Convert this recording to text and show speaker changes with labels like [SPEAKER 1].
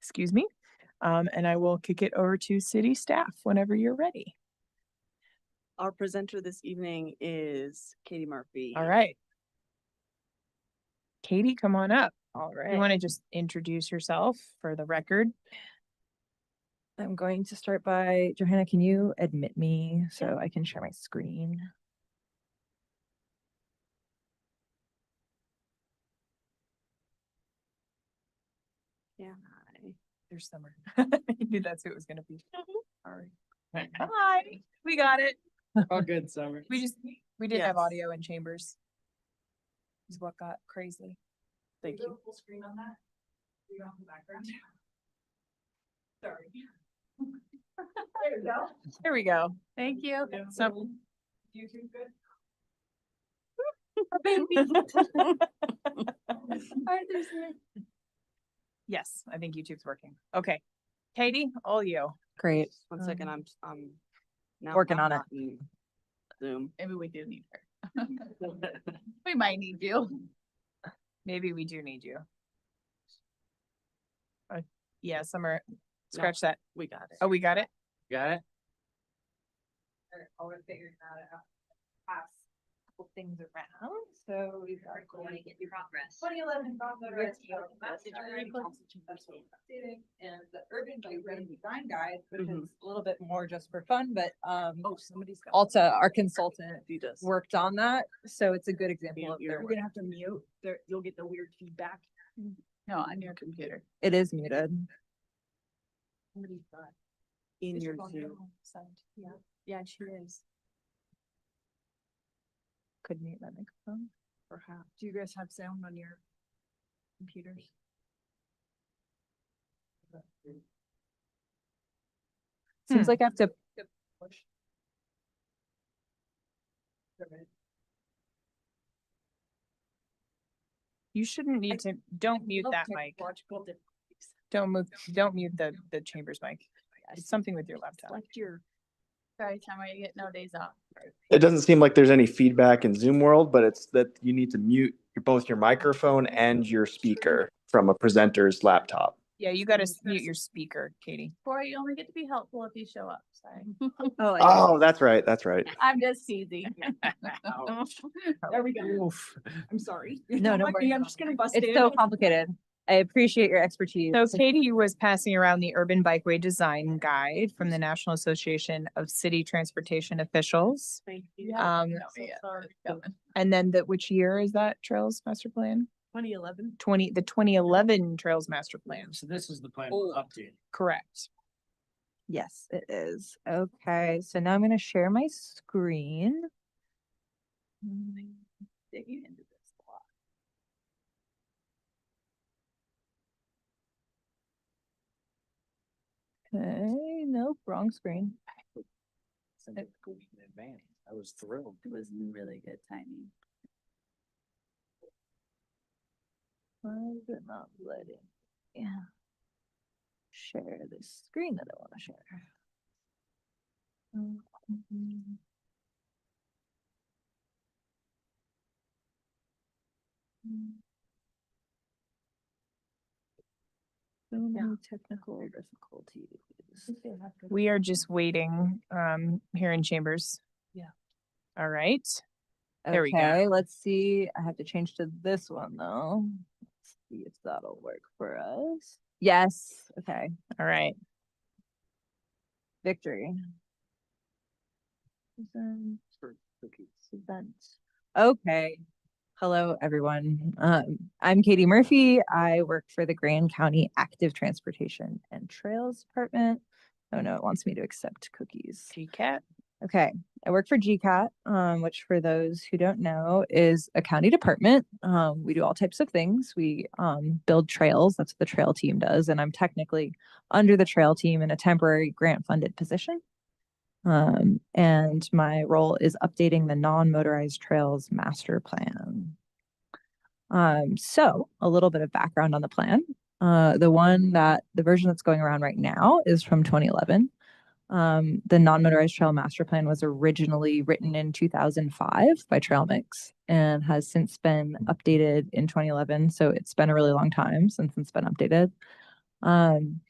[SPEAKER 1] excuse me. Um, and I will kick it over to city staff whenever you're ready.
[SPEAKER 2] Our presenter this evening is Katie Murphy.
[SPEAKER 1] All right. Katie, come on up.
[SPEAKER 3] All
[SPEAKER 1] You
[SPEAKER 3] right,
[SPEAKER 1] want to just introduce yourself for the record?
[SPEAKER 3] I'm going to start by, Johanna, can you admit me so I can share my screen?
[SPEAKER 2] Yeah.
[SPEAKER 1] There's summer. I knew that's who it was gonna be. Sorry. Hi, we got it.
[SPEAKER 4] All Oh, good, Summer.
[SPEAKER 1] We just, we didn't have
[SPEAKER 2] Yes.
[SPEAKER 1] audio in chambers. Is what got crazy.
[SPEAKER 2] Thank you.
[SPEAKER 1] Full screen on that? You don't have the background. Sorry. There we go. There we go. Thank you. So. YouTube good? Yes, I think YouTube's working. Okay. Katie, all you.
[SPEAKER 3] Great.
[SPEAKER 2] Just One second, I'm, I'm. now-
[SPEAKER 3] Working
[SPEAKER 2] I'm
[SPEAKER 3] on it.
[SPEAKER 2] not in Zoom.
[SPEAKER 5] Maybe we do need her. We might need you.
[SPEAKER 1] Maybe we do need you. Uh, yeah, Summer, scratch that.
[SPEAKER 2] We got it.
[SPEAKER 1] Oh, we got it?
[SPEAKER 4] Got it?
[SPEAKER 5] Oh,
[SPEAKER 3] Always figuring that out. Pass couple things around, so we are going to get progress. Twenty eleven progress. And the urban by urban design guide, which
[SPEAKER 2] Mhm.
[SPEAKER 3] is a little bit more just for fun, but um
[SPEAKER 2] Oh, somebody's got.
[SPEAKER 3] Alta, our consultant,
[SPEAKER 2] He does.
[SPEAKER 3] worked on that, so it's a good
[SPEAKER 2] Mute
[SPEAKER 3] example of
[SPEAKER 2] your-
[SPEAKER 3] their
[SPEAKER 2] You're
[SPEAKER 3] work.
[SPEAKER 5] have to mute, there, you'll get the weird feedback. No, on your computer.
[SPEAKER 3] It is muted.
[SPEAKER 2] In your Zoom.
[SPEAKER 5] Yeah, yeah, she is.
[SPEAKER 1] Could mute my microphone.
[SPEAKER 5] Perhaps. Do you guys have sound on your computers? Hmm.
[SPEAKER 3] Seems like I have to
[SPEAKER 1] You shouldn't need to, don't
[SPEAKER 5] Oh,
[SPEAKER 1] mute that mic. Don't move, don't mute the, the chambers mic. It's something with your laptop.
[SPEAKER 5] Select your. Sorry, time I get no days off.
[SPEAKER 6] It doesn't seem like there's any feedback in Zoom world, but it's that you need to mute your- both your microphone and your speaker from a presenter's laptop.
[SPEAKER 1] Yeah, you gotta s-
[SPEAKER 5] There's-
[SPEAKER 1] mute your speaker, Katie.
[SPEAKER 5] Corey, you only get to be helpful if you show up, sorry.
[SPEAKER 6] Oh, that's right. That's right.
[SPEAKER 5] I'm just teasing.
[SPEAKER 2] There we go.
[SPEAKER 5] I'm sorry.
[SPEAKER 3] Oh. No, no worries.
[SPEAKER 5] I'm just gonna bust in.
[SPEAKER 3] It's so complicated. I appreciate your expertise.
[SPEAKER 1] So Katie was passing around the Urban Bikeway Design Guide from the National Association of City Transportation Officials.
[SPEAKER 2] Thank you.
[SPEAKER 5] Yeah.
[SPEAKER 1] Um,
[SPEAKER 5] No, yeah, it's coming.
[SPEAKER 1] and then the, which year is that Trails Master Plan?
[SPEAKER 2] Twenty eleven.
[SPEAKER 1] Twenty, the twenty eleven Trails Master Plan,
[SPEAKER 4] So this is the plan
[SPEAKER 2] Old.
[SPEAKER 4] update.
[SPEAKER 1] correct?
[SPEAKER 3] Yes, it is. Okay, so now I'm gonna share my screen. Mm,
[SPEAKER 5] Digging into this a lot.
[SPEAKER 3] Okay, nope, wrong screen.
[SPEAKER 4] Send it a week in advance. I was thrilled.
[SPEAKER 5] It was really good timing.
[SPEAKER 3] Why is it not letting? Yeah. Share this screen that I wanna share. Mm, mm. So many technical difficulties.
[SPEAKER 1] We are just waiting, um, here in chambers.
[SPEAKER 5] Yeah.
[SPEAKER 1] All right, There we go.
[SPEAKER 3] Okay, let's see. I have to change to this one though. Let's see if that'll work for us. Yes. Okay.
[SPEAKER 1] all right.
[SPEAKER 3] Victory. Present,
[SPEAKER 4] For cookies.
[SPEAKER 3] present. Okay. Hello, everyone. Um, I'm Katie Murphy. I work for the Grand County Active Transportation and Trails Department. Oh no, it wants me to accept cookies.
[SPEAKER 1] GCAT.
[SPEAKER 3] Okay, I work for GCAT, um, which for those who don't know is a county department. Um, we do all types of things. We um, build trails. That's what the trail team does, and I'm technically under the trail team in a temporary grant-funded position. Um, and my role is updating the non-motorized trails master plan. Um, so a little bit of background on the plan. Uh, the one that the version that's going around right now is from 2011. Um, the non-motorized trail master plan was originally written in 2005 by Trail Mix and has since been updated in 2011. So it's been a really long time since it's been updated. Um,